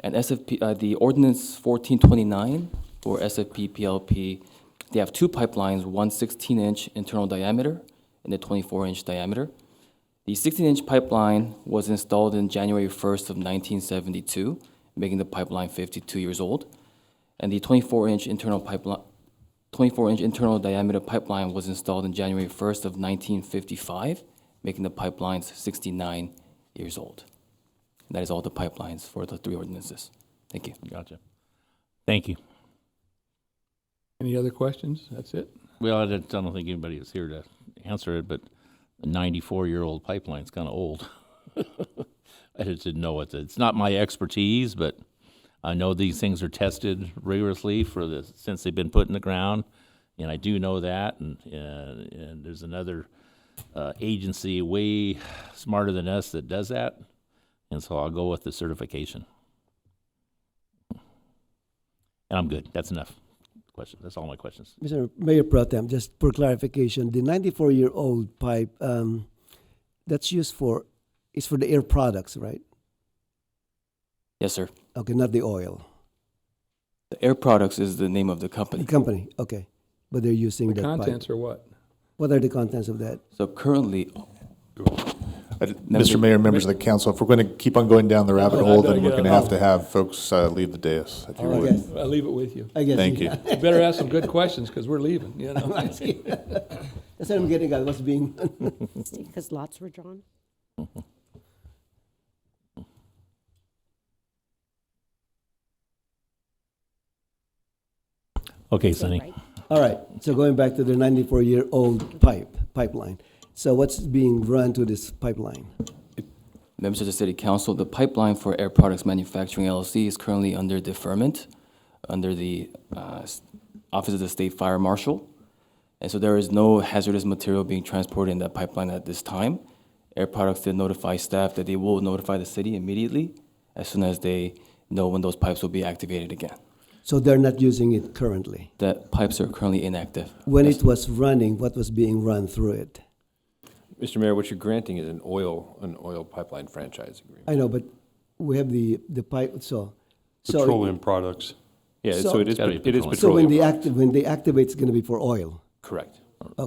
And SFP, uh, the ordinance 1429 for SFP PLP, they have two pipelines, one 16-inch internal diameter and a 24-inch diameter. The 16-inch pipeline was installed in January 1st of 1972, making the pipeline 52 years old. And the 24-inch internal pipeline, 24-inch internal diameter pipeline was installed in January 1st of 1955, making the pipelines 69 years old. And That is all the pipelines for the three ordinances. Thank you. Gotcha. Thank you. Any other questions? That's it? Well, I don't I don't think anybody is here to answer it, but a 94-year-old pipeline's kind of old. I just didn't know what to, it's not my expertise, but I know these things are tested rigorously for the, since they've been put in the ground, and I do know that, and, and and there's another uh, agency way smarter than us that does that, and so I'll go with the certification. And I'm good, that's enough question, that's all my questions. Mr. Mayor Pro Tem, just for clarification, the 94-year-old pipe, um, that's used for, it's for the air products, right? Yes, sir. Okay, not the oil. The Air Products is the name of the The company. company, okay. But they're using The that pipe. contents are what? What are the contents of that? So currently, I did- Mr. Mayor, members of the council, if we're going to keep on going down the rabbit No, I hole, don't then we're get going to it. have to have folks uh, leave the dais, if you right. would. Yes. I leave it with you. I guess. Thank you. You better ask some good questions, because we're leaving, you know? That's what I'm getting at, what's being, because lots were drawn. Okay, Is that Sonny. right? all right. So going back to the 94-year-old pipe, pipeline. So what's being run to this pipeline? members of the City Council, the pipeline for Air Products Manufacturing LLC is currently under deferment under the uh, s- Office of the State Fire Marshal. And so there is no hazardous material being transported in that pipeline at this time. Air Products did notify staff that they will notify the city immediately as soon as they know when those pipes will be activated again. So they're not using it currently. That pipes are currently inactive. When it was running, what was being run through it? Mr. Mayor, what you're granting is an oil, an oil pipeline franchise agreement. I know, but we have the, the pipe, so. so- petroleum products. Yeah, So- so it is, Gotta be it is petroleum. So when petroleum. they active, when they activate, it's gonna be for oil. Correct,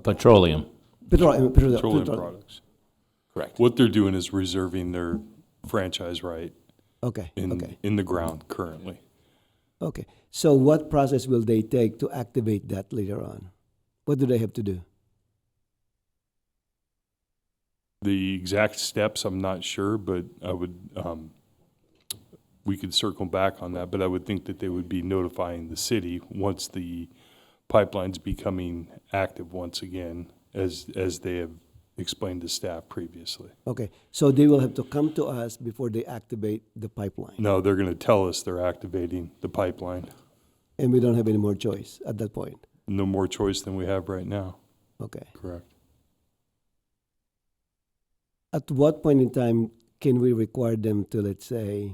Petroleum. Petroleum, petroleum, Petroleum petroleum. products. correct. What they're doing is reserving their franchise right Okay, in, okay, in the ground currently. okay. So what process will they take to activate that later on? What do they have to do? The exact steps, I'm not sure, but I would, um, we could circle back on that, but I would think that they would be notifying the city once the pipeline's becoming active once again, as, as they have explained to staff previously. Okay, so they will have to come to us before they activate the pipeline, No, they're gonna tell us they're activating the pipeline. and we don't have any more choice at that point. No more choice than we have right now, Okay. correct? At what point in time can we require them to, let's say,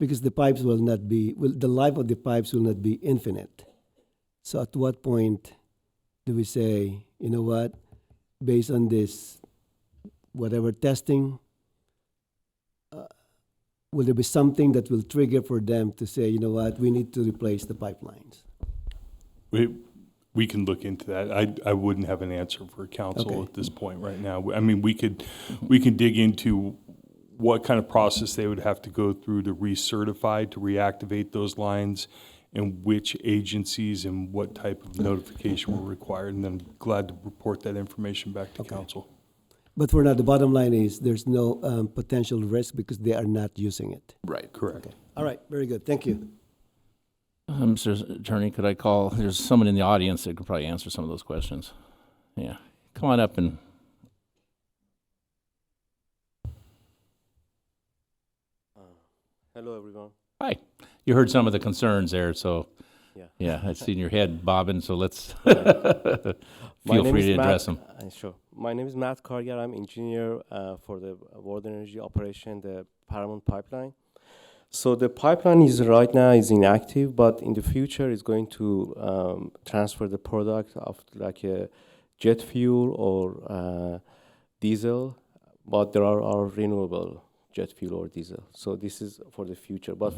because the pipes will not be, will, the life of the pipes will not be infinite. So at what point do we say, you know what, based on this, whatever testing, uh, will there be something that will trigger for them to say, you know what, we need to replace the pipelines? We, we can look into that. I, I wouldn't have an answer for council Okay. at this point right now. I mean, we could, we can dig into what kind of process they would have to go through to recertify, to reactivate those lines, and which agencies and what type of notification were required, and then glad to report that information back to Okay. council. But for now, the bottom line is there's no um, potential risk because they are not using it. Right. Correct. All right, very good. Thank you. Uh, Mr. Attorney, could I call, there's someone in the audience that could probably answer some of those questions. Yeah, come on up and. Uh, Hello, everyone. Hi, you heard some of the concerns there, so, Yeah. yeah, I've seen your head bobbing, so let's My feel name free is to Matt- address them. uh, sure. My name is Matt Kargar. I'm engineer uh, for the World Energy Operation, the Paramount Pipeline. So the pipeline is right now is inactive, but in the future is going to um, transfer the product of like a jet fuel or uh, diesel, but there are, are renewable jet fuel or diesel. So this is for the future. But